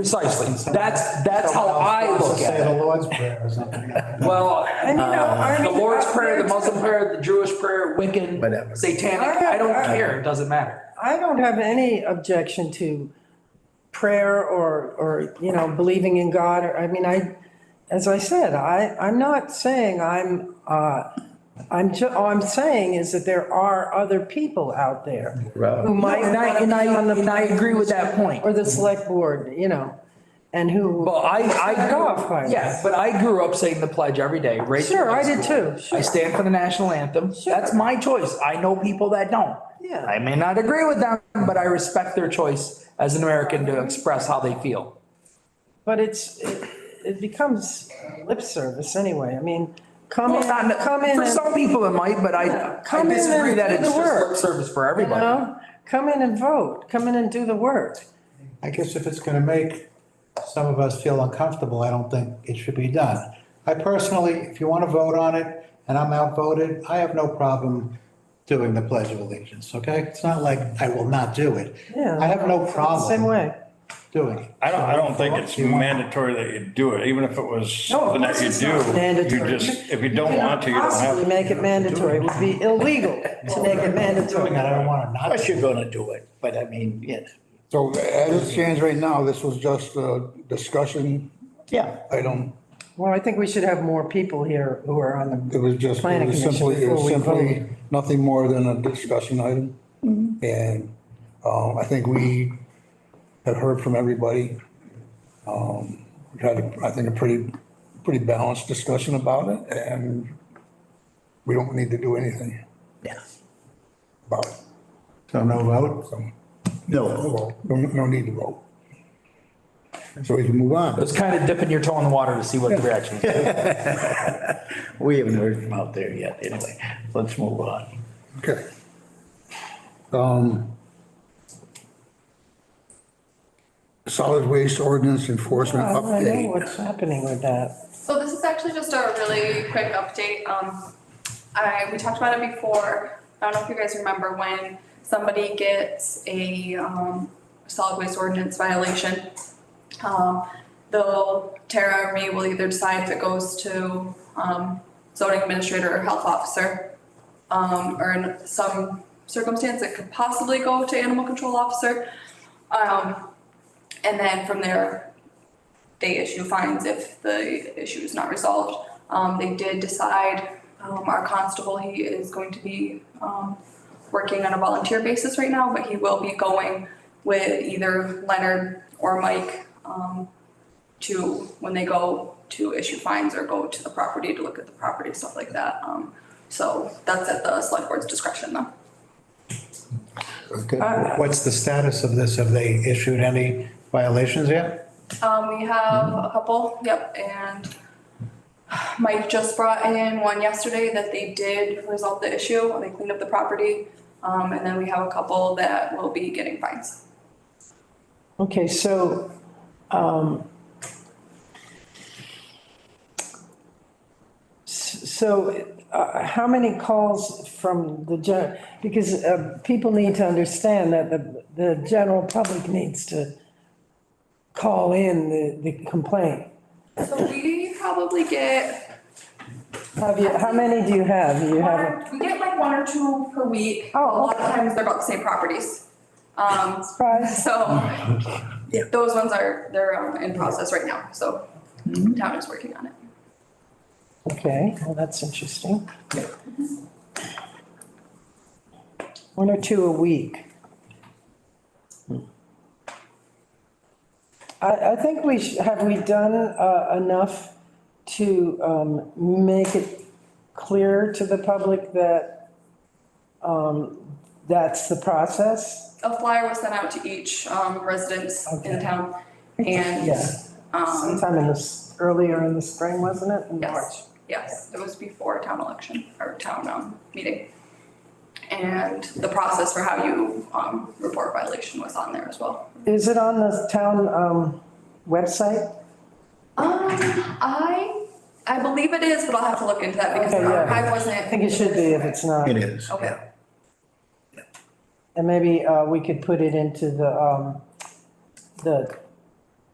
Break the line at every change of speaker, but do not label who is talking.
Precisely. That's, that's how I look
Say the
at it.
Lord's Prayer or something.
Well,
And you know,
Uh, the
Arnie-
Lord's Prayer, the Muslim prayer, the Jewish prayer, Wiccan,
Whatever.
satanic, I don't care. It doesn't matter.
I don't have any objection to prayer or, or, you know, believing in God, or, I mean, I, as I said, I, I'm not saying I'm, uh, I'm, ju- all I'm saying is that there are other people out there who
Right.
might
And I,
not
and
be on
I,
the.
and I agree with that point.
Or the select board, you know, and who.
Well, I, I,
Back off,
grew-
Mike.
yeah, but I grew up saying the pledge every day, right? through
Sure,
high
I did
school.
too, sure.
I stand for the national anthem. That's my choice. I know people that don't.
Yeah.
I may not agree with them, but I respect their choice as an American to express how they feel.
But it's, it it becomes lip service anyway. I mean, come in,
Well, not-
come in
For
and,
some people it might, but I, I
Come in
disagree
and
that
do
it's
the
just
work.
lip service for
you
everybody.
know, come in and vote, come in and do the work.
I guess if it's gonna make some of us feel uncomfortable, I don't think it should be done. I personally, if you wanna vote on it and I'm outvoted, I have no problem doing the Pledge of Allegiance, okay? It's not like I will not do it.
Yeah.
I have no
it's the Same
problem
way.
doing it.
I don't, I don't think it's
You want-
mandatory that you do it, even if it
No,
was
of
something that
course
you
it's
do.
not
You
mandatory.
just, if you don't
cannot
want to, you don't have
possibly
to.
Make it mandatory. It would be illegal to make it mandatory.
Doing it, I don't wanna
Of
not.
course you're gonna do it, but I mean, yeah,
So as it stands right now, this was just a discussion
yeah.
item.
Well, I think we should have more people here who are on
It
the,
was just, it
Planning
was
commission
simply, it was
before we
simply nothing more than a discussion item.
Mm-hmm.
And um, I think we had heard from everybody. Um, We had, I think, a pretty, pretty balanced discussion about it and we don't need to do anything
Yeah.
about it.
So no vote?
So
No,
no, no need to vote. So we can move on.
It's kind of dipping your toe in the water to see what the reaction is.
we haven't heard from out there yet, anyway. Let's move on.
Okay. Um, Solid waste ordinance enforcement
Oh, I don't know
update.
what's happening with that.
So this is actually just a really quick update. Um, I, we talked about it before. I don't know if you guys remember when somebody gets a, um, solid waste ordinance violation. Um, they'll, Tara or me will either decide if it goes to, um, zoning administrator or health officer. Um, or in some circumstance, it could possibly go to animal control officer. Um, and then from there, they issue fines if the issue is not resolved. Um, they did decide, um, our constable, he is going to be, um, working on a volunteer basis right now, but he will be going with either Leonard or Mike, um, to, when they go to issue fines or go to the property to look at the property, stuff like that. Um, so that's at the select board's discretion though.
Okay.
Uh-huh.
What's the status of this? Have they issued any violations yet?
Um, we have a couple, yep, and Mike just brought in one yesterday that they did resolve the issue, they cleaned up the property. Um, and then we have a couple that will be getting fines.
Okay, so, um, s- so, uh, how many calls from the gen, because, uh, people need to understand that the, the general public needs to call in the, the complaint.
So we probably get,
Have you, how many do you have? Do You have,
one- we get like one or two per week.
Oh,
A lot of times they're about the same properties. Um,
surprise,
so
Yeah.
those ones are, they're um, in process right now, so town is working on it.
okay, well, that's interesting. One or two a week. I, I think we should, have we done uh, enough to um, make it clear to the public that um, that's the process?
A flyer was sent out to each, um, residence in
Okay.
town and,
Yeah.
um,
Sometime in this, earlier in the spring, wasn't it? In
Yes.
March.
Yes, it was before town election or town um meeting. And the process for how you um report violation was on there as well.
Is it on the town um, website?
Um, I, I believe it is, but I'll have to look into that because
Okay,
the
yeah.
archive wasn't.
I think it should be if it's not.
It is.
Okay,
And maybe uh, we could put it into the, um, the